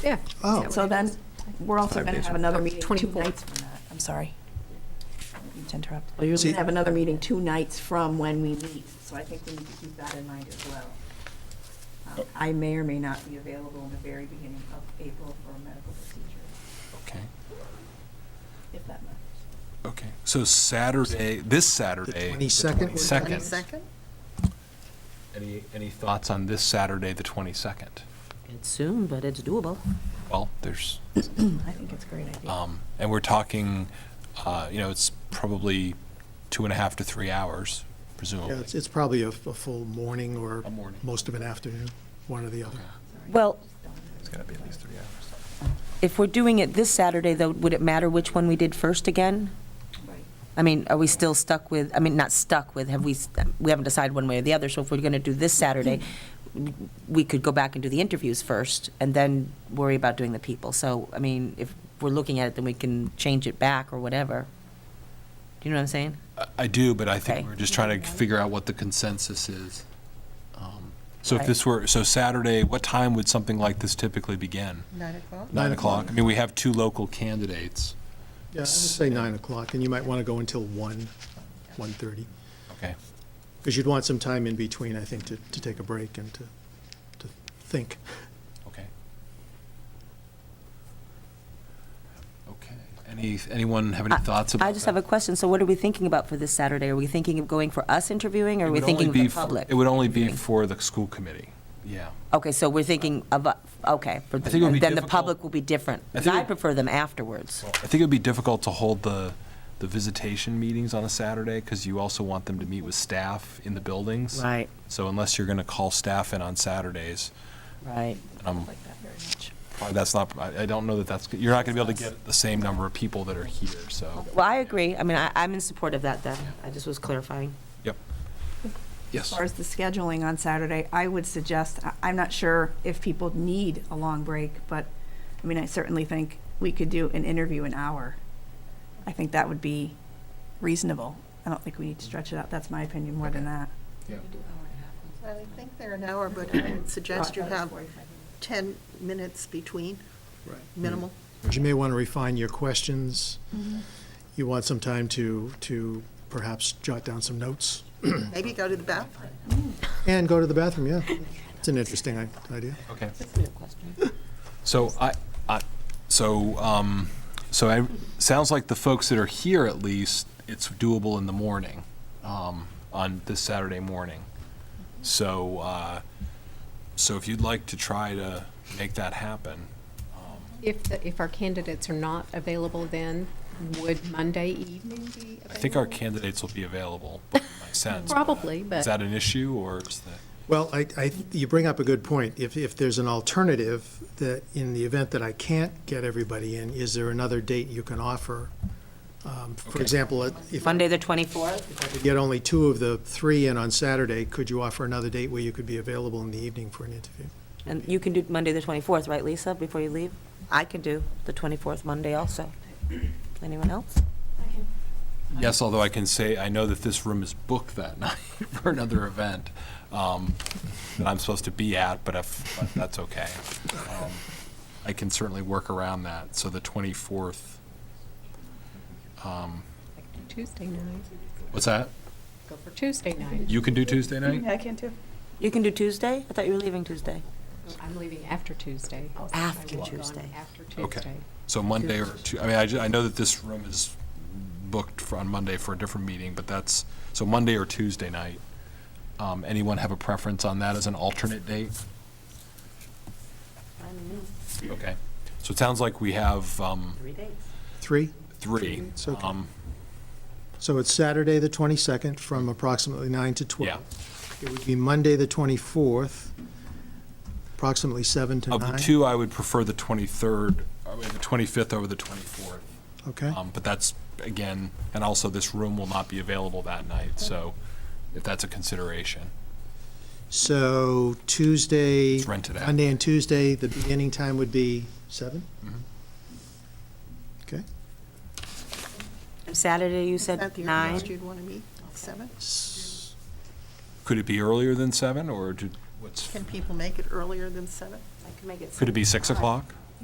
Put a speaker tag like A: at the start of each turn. A: Yeah.
B: Oh.
A: Is that
C: So
A: what it
C: then,
A: is?
C: we're also going to have another meeting two
A: 24th.
C: nights from that. I'm sorry. Didn't mean To interrupt.
D: Oh,
E: Well,
C: We're
E: you're-
C: going to have another meeting two nights from when we meet, so I think we need to keep that in mind as well. Um, I may or may not be available in the very beginning of April for a medical procedure,
D: Okay,
C: if that matters.
D: okay. So Saturday, this Saturday. the
B: 22nd?
D: 22nd. Any, any thoughts on this Saturday, the 22nd?
E: It's soon, but it's doable.
D: Well, there's, Hmm.
C: I think it's a great idea.
D: um, and we're talking, uh, you know, it's probably two and a half to three hours,
B: Yeah,
D: presumably.
B: it's, it's probably a, a full morning or
D: A morning.
B: most of an afternoon, one or the other.
F: Well,
D: It's got to be at least three hours.
F: if we're doing it this Saturday, though, would it matter which one we did first again?
C: Right.
F: I mean, are we still stuck with, I mean, not stuck with, have we, we haven't decided one way or the other, so if we're going to do this Saturday, we could go back and do the interviews first, and then worry about doing the people. So, I mean, if we're looking at it, then we can change it back or whatever. Do you know what I'm saying?
D: I do, but I
F: Okay.
D: think we're just trying to figure out what the consensus is. Um, So if
F: Right.
D: this were, so Saturday, what time would something like this typically begin?
G: Nine o'clock?
D: Nine o'clock? I mean, we have two local candidates.
B: Yeah, I would say nine o'clock, and you might want to go until one, one-thirty,
D: Okay.
B: because you'd want some time in between, I think, to, to take a break and to, to think.
D: Okay. Okay. Any, anyone have any thoughts about
F: I just have a question, so what are we thinking about for this Saturday? Are we thinking of going for us interviewing, or are we thinking of the public?
D: It would only be
F: interviewing?
D: for the school committee, yeah.
F: Okay, so we're thinking of, uh, okay, for-
D: I think it would be
F: then the
D: difficult-
F: public will be different.
D: I think it-
F: I prefer them afterwards.
D: I think it would be difficult to hold the, the visitation meetings on a Saturday because you also want them to meet with staff in the buildings.
E: Right,
D: So unless you're going to call staff in on Saturdays,
F: right.
D: um,
C: Like that very much.
D: probably that's not, I, I don't know that that's, you're not going to be able to get the same number of people that are here, so.
F: Well, I agree, I mean, I, I'm in support of that then, I just was clarifying.
D: Yep.
C: As
D: Yes.
C: far as the scheduling on Saturday, I would suggest, I- I'm not sure if people need a long break, but, I mean, I certainly think we could do an interview an hour. I think that would be reasonable. I don't think we need to stretch it out. That's my opinion more than that.
G: I would think they're an hour, but I would suggest you have 10 minutes between,
B: Right.
G: minimal.
B: Mm. But you may want to refine your questions. You want some time to, to perhaps jot down some notes
G: Maybe go to the bathroom.
B: and go to the bathroom, yeah. It's an interesting i- idea.
D: Okay. So I, I, so, um, so I, sounds like the folks that are here at least, it's doable in the morning, um, on this Saturday morning. So, uh, so if you'd like to try to make that happen,
A: If, the- if our candidates are not available then, would Monday evening be available?
D: I think our candidates will be available, would be my sense.
A: Probably, but-
D: Is that an issue or is that,
B: Well, I, I, you bring up a good point. If, if there's an alternative, that in the event that I can't get everybody in, is there another date you can offer? Um, For
D: Okay.
B: example, if I
F: Monday, the 24th?
B: could get only two of the three in on Saturday, could you offer another date where you could be available in the evening for an interview?
F: And you can do Monday, the 24th, right, Lisa, before you leave? I can do the 24th Monday also. Anyone else?
D: yes, although I can say, I know that this room is booked that night for another event, um, that I'm supposed to be at, but if, but that's okay. Um, I can certainly work around that, so the 24th,
A: Tuesday night,
D: what's that?
A: go for Tuesday night.
D: You can do Tuesday night?
C: I can too.
F: You can do Tuesday? I thought you were leaving Tuesday.
A: I'm leaving after Tuesday.
F: After
A: I will be gone
F: Tuesday.
A: After
D: Okay.
A: Tuesday.
D: So Monday or, Tu- I mean, I, ju- I know that this room is booked for, on Monday for a different meeting, but that's, so Monday or Tuesday night. Um, anyone have a preference on that as an alternate date? Okay, so it sounds like we have um,
F: Three dates.
B: Three?
D: three.
B: It's okay.
D: Um,
B: So it's Saturday, the 22nd, from approximately 9 to 12.
D: Yeah,
B: It would be Monday, the 24th, approximately 7 to 9.
D: of the two, I would prefer the 23rd, I mean, the 25th over the 24th.
B: Okay,
D: Um, But that's, again, and also this room will not be available that night, so if that's a consideration.
B: so Tuesday.
D: It's rented out.
B: Monday and Tuesday, the beginning time would be 7? Okay,
F: And Saturday, you
G: Is that
F: said
G: the
F: nine?
G: earliest you'd want to meet? Seven?
B: S-
D: Could it be earlier than seven, or do- what's,
G: Can people make it earlier than seven?
F: I can make it
D: could it be 6 o'clock?